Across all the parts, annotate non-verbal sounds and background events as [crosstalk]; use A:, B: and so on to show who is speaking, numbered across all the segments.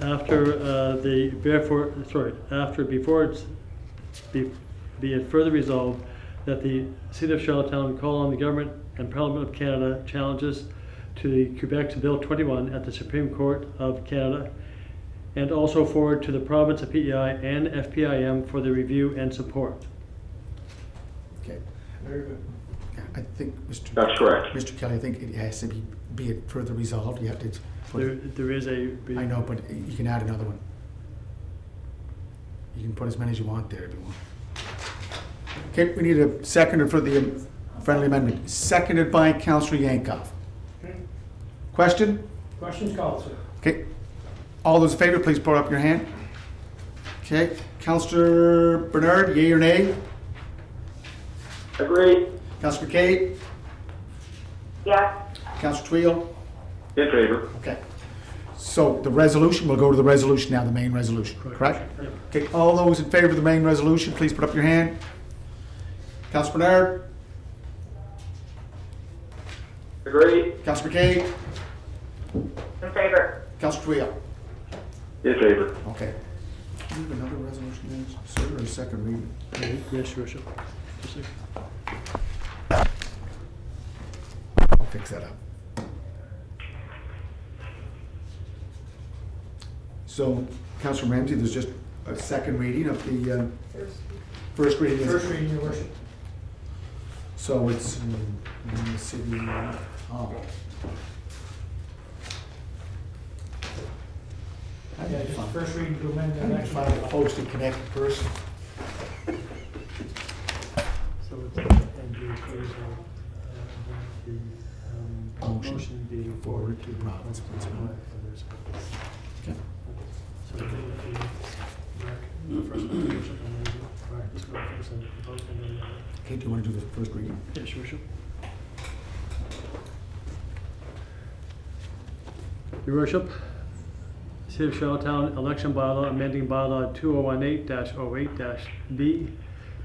A: after uh, the, therefore, sorry, after, before it's, be be it further resolved that the City of Charlottetown call on the government and Parliament of Canada challenges to the Quebec's Bill 21 at the Supreme Court of Canada, and also forward to the province of PEI and FPIM for their review and support.
B: Okay,
C: Very good.
B: I think, Mr.
D: That's correct.
B: Mr. Kelly, I think it has to be, be it further resolved, you have to,
A: There,
B: put-
A: there is a.
B: I know, but you can add another one. You can put as many as you want there if you want. Okay, we need a seconder for the friendly amendment, seconded by Counselor Yankoff.
C: Okay.
B: Question?
C: Questions called, sir?
B: Okay, all those in favor, please put up your hand. Okay, Counselor Bernard, yea or nay?
D: Agree.
B: Counselor Kate?
E: yes,
B: Counselor Twill?
D: In favor.
B: Okay. So the resolution, we'll go to the resolution now, the main resolution, correct?
A: Yep.
B: Okay, all those in favor of the main resolution, please put up your hand. Councilor Bernard,
D: Agree.
B: Councilor McKay,
E: in favor,
B: Councilor Twill.
D: In favor.
B: Okay. Do you have another resolution, there, sir, or a second reading?
A: Yes, Your Worship. Just a-
B: I'll fix that up. So, Councilor Ramsey, there's just a second reading of the uh, first reading.
C: First reading, your worship.
B: So it's in in the city uh, hall. I
C: Yeah,
B: didn't
C: just
B: find-
C: first reading to amend
B: I
C: the
B: didn't
C: next
B: find a
C: bylaw.
B: posted connected person.
A: So it's, and you approve the, um,
B: Motion.
A: motion being forwarded to the province principal.
B: Okay.
A: So I think if you mark the first one, Your Worship, and then you mark this one first, and the vote, and then the other.
B: Kate, do you want to do the first reading?
A: Yes, Your Worship. Your Worship, City of Charlottetown Election Bylaw amending bylaw two oh one eight 8 B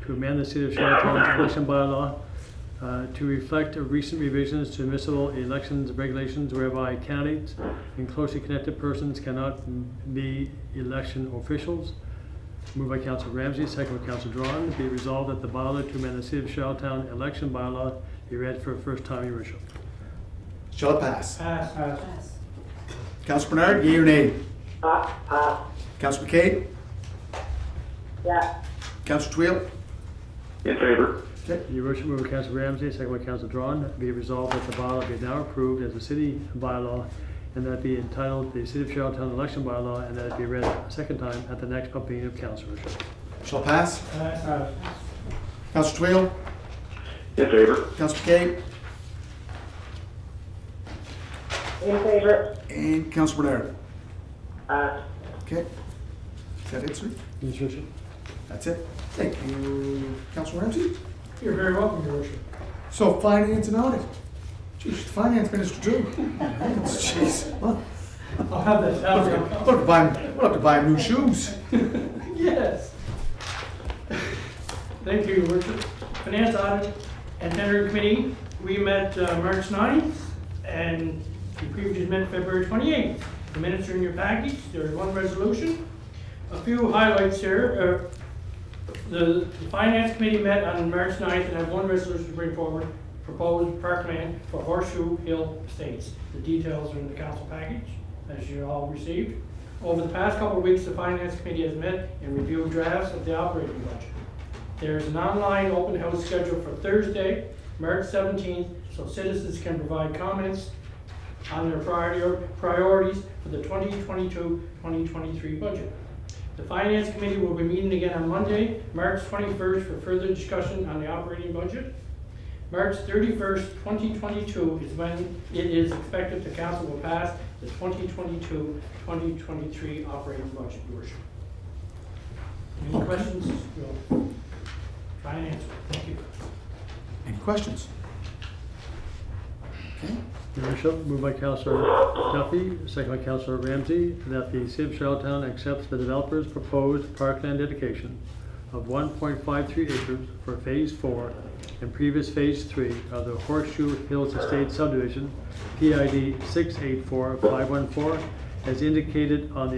A: to amend the City of Charlottetown's election bylaw uh, to reflect recent revisions to municipal elections regulations whereby candidates and closely connected persons cannot m- be election officials. Moved by Council Ramsey, second by Council Drawn, be it resolved that the bylaw to amend the City of Charlottetown election bylaw be read for a first time, Your Worship.
B: Shall it pass?
C: Pass, pass.
B: Councilor Bernard, yea or nay?
E: pass, pass,
B: Councilor McCabe?
E: yes,
B: Councilor Twill?
D: In favor.
B: Okay.
A: Your Worship, moved by Council Ramsey, second by Council Drawn, be it resolved that the bylaw be now approved as a city bylaw and that be entitled the City of Charlottetown election bylaw and that it be read a second time at the next public meeting of council, Your Worship.
B: Shall it pass?
C: Pass, pass.
B: Councilor Twill?
D: In favor.
B: Councilor McCabe?
E: in favor, Uh.
B: And Councilor Bernard.
E: pass.
B: Okay. Is that it, sir?
A: Yes, Your Worship.
B: That's it? Thank you, Councilor Ramsey.
C: You're very welcome, your worship.
B: So finance and audit. Jeez, finance minister too. [laughs] Jeez, well,
C: I'll have that
B: we'll
C: down.
B: have to buy him, we'll have to buy him new shoes.
C: [laughs] Yes. Thank you, Your Worship. Finance Audit and Tender Committee, we met uh, March 9th, and we previously met February 28th. The minutes are in your package, there is one resolution. A few highlights here. uh, The the Finance Committee met on March 9th, and I have one resolution to bring forward, proposed park plan for Horseshoe Hill Estates. The details are in the council package, as you all received. Over the past couple of weeks, the Finance Committee has met and reviewed drafts of the operating budget. There is an online open house scheduled for Thursday, March 17th, so citizens can provide comments on their priority- priorities for the 2022-2023 budget. The Finance Committee will be meeting again on Monday, March 21st, for further discussion on the operating budget. March thirty-first, twenty twenty-two is when it is expected the council will pass the 2022-2023 operating budget, your worship. Any questions? We'll Try and answer, thank you.
B: Any questions? Okay,
A: Your Worship, moved by Counselor Duffy, second by Counselor Ramsey, that the City of Charlottetown accepts the developer's proposed parkland dedication of one point five three acres for Phase Four and previous Phase Three of the Horseshoe Hills Estate subdivision, PID six eight four five one four, as indicated on the